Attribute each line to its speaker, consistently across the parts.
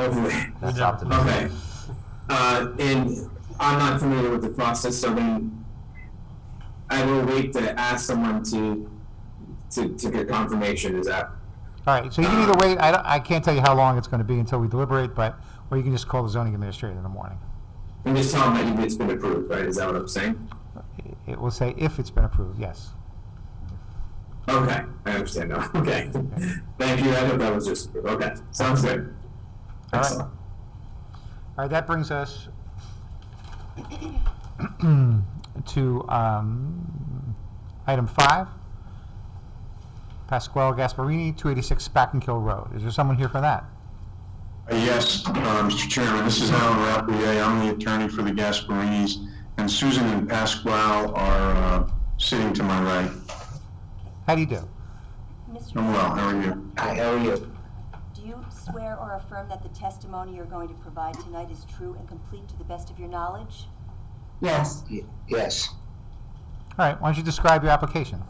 Speaker 1: Okay.
Speaker 2: That's
Speaker 3: Yeah.
Speaker 2: optimistic.
Speaker 1: Okay. Uh, and I'm not familiar with the process, so then I will wait to ask someone to to, to get confirmation. Is that
Speaker 3: All right, so you can either wait, I, don't- I can't tell you how long it's going to be until we deliberate, but, or you can just call the zoning administrator in the morning.
Speaker 1: I'm just telling them that it's been approved, right? Is that what I'm saying?
Speaker 3: It- It will say if it's been approved, yes.
Speaker 1: Okay, I understand now. Okay, thank you. I thought that was just okay. Sounds good.
Speaker 3: All right.
Speaker 1: Excellent.
Speaker 3: All right, that brings us to um, item five, Pasquale Gasparini, 286 Spackenkill Road. Is there someone here for that?
Speaker 4: Uh, Yes, uh, Mr. Chairman, this is Alan Rappier. I'm the attorney for the Gasparinis, and Susan and Pasquale are uh, sitting to my right.
Speaker 3: How do you do?
Speaker 5: Mr.
Speaker 4: I'm well,
Speaker 5: Chairman,
Speaker 4: how are you?
Speaker 1: Hi, how are you?
Speaker 5: do you swear or affirm that the testimony you're going to provide tonight is true and complete to the best of your knowledge?
Speaker 6: Yes,
Speaker 7: Yes.
Speaker 3: All right, why don't you describe your application?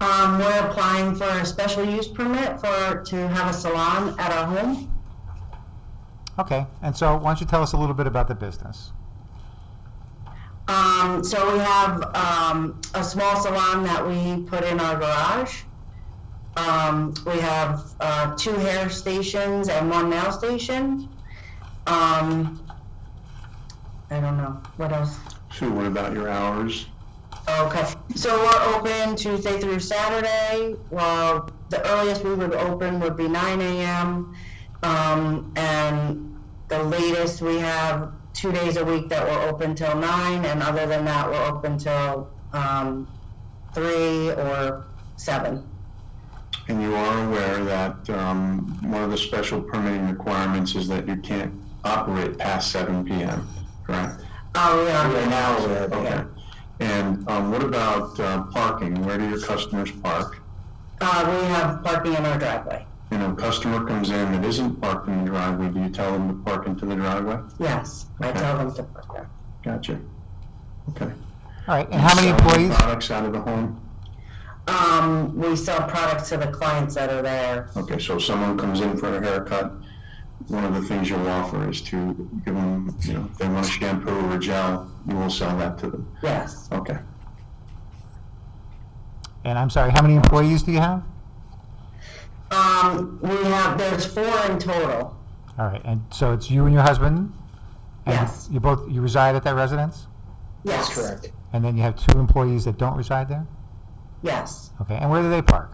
Speaker 6: um, we're applying for a special use permit for, to have a salon at our home.
Speaker 3: Okay, and so why don't you tell us a little bit about the business?
Speaker 6: Um, so we have, um, a small salon that we put in our garage. Um, we have, uh, two hair stations and one nail station. Um, I don't know, what else?
Speaker 4: Sue, what about your hours?
Speaker 6: Okay, so we're open Tuesday through Saturday. Well, the earliest we would open would be nine AM. Um, and the latest, we have two days a week that we're open till nine, and other than that, we're open till, um, three or seven.
Speaker 4: And you are aware that um, one of the special permitting requirements is that you can't operate past 7 PM, correct?
Speaker 6: Oh,
Speaker 4: We
Speaker 6: yeah.
Speaker 4: are now aware, okay. And um, what about uh, parking? Where do your customers park?
Speaker 6: Uh, we have parking in our driveway.
Speaker 4: You know, customer comes in that isn't parked in the driveway, do you tell them to park into the driveway?
Speaker 6: Yes, I tell them to park there.
Speaker 4: Gotcha. Okay.
Speaker 3: All right, and how many
Speaker 4: Selling
Speaker 3: employees?
Speaker 4: Products out of the home?
Speaker 6: Um, we sell products to the clients that are there.
Speaker 4: Okay, so if someone comes in for a haircut, one of the things you'll offer is to give them, you know, if they want a shampoo or a gel, you will sell that to them.
Speaker 6: Yes,
Speaker 4: Okay.
Speaker 3: And I'm sorry, how many employees do you have?
Speaker 6: um, we have, there's four in total.
Speaker 3: All right, and so it's you and your husband? and
Speaker 6: Yes.
Speaker 3: You both, you reside at that residence?
Speaker 6: Yes.
Speaker 7: That's correct.
Speaker 3: And then you have two employees that don't reside there?
Speaker 6: Yes.
Speaker 3: Okay, and where do they park?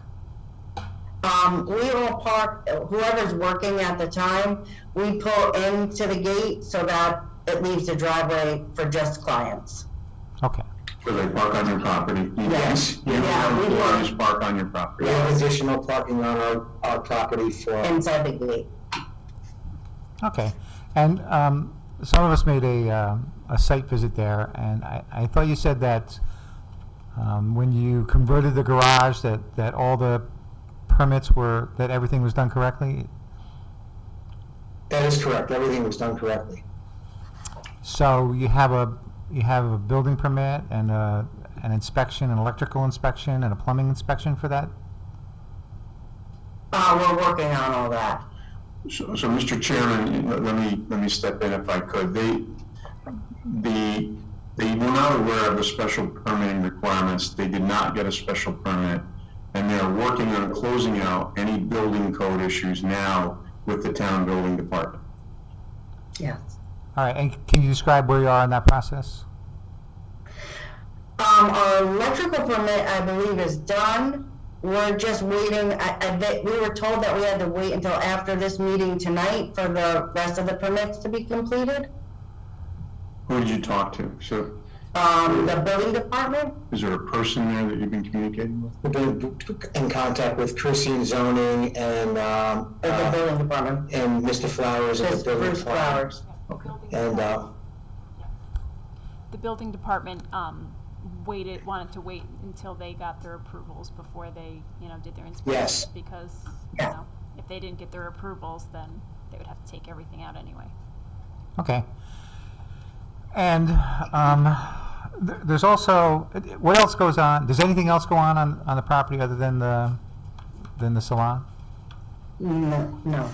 Speaker 6: Um, we all park, whoever's working at the time, we pull into the gate so that it leaves the driveway for just clients.
Speaker 3: Okay,
Speaker 4: So they park on your property?
Speaker 6: Yes.
Speaker 4: You
Speaker 6: Yeah, we
Speaker 4: don't
Speaker 6: will.
Speaker 4: always park on your property?
Speaker 7: We have additional parking on our, our property for,
Speaker 6: Inside the gate.
Speaker 3: okay. And um, some of us made a, um, a site visit there, and I, I thought you said that um, when you converted the garage, that, that all the permits were, that everything was done correctly?
Speaker 7: that is correct. Everything was done correctly.
Speaker 3: So you have a, you have a building permit and a, an inspection, an electrical inspection, and a plumbing inspection for that?
Speaker 6: Uh, we're working on all that.
Speaker 4: So, so, Mr. Chairman, let let me, let me step in if I could. They, the, they were not aware of the special permitting requirements. They did not get a special permit. And they're working on closing out any building code issues now with the town building department.
Speaker 6: Yes.
Speaker 3: All right, and can you describe where you are in that process?
Speaker 6: Um, our electrical permit, I believe, is done. We're just waiting, I, I, bet- we were told that we had to wait until after this meeting tonight for the rest of the permits to be completed.
Speaker 4: Who did you talk to? So
Speaker 6: Um, the building department?
Speaker 4: is there a person there that you've been communicating with?
Speaker 7: We've been in contact with Christine Zoning and, um,
Speaker 6: Or the
Speaker 7: uh,
Speaker 6: building department?
Speaker 7: and Mr. Flowers at the
Speaker 6: Just
Speaker 7: building
Speaker 6: Bruce
Speaker 7: department.
Speaker 6: Flowers.
Speaker 7: And, uh,
Speaker 8: The building department, um, waited, wanted to wait until they got their approvals before they, you know, did their inspections. Because, you
Speaker 6: Yeah.
Speaker 8: know, if they didn't get their approvals, then they would have to take everything out anyway.
Speaker 3: Okay. And um, th- there's also, what else goes on? Does anything else go on on, on the property other than the, than the salon?
Speaker 6: No, no.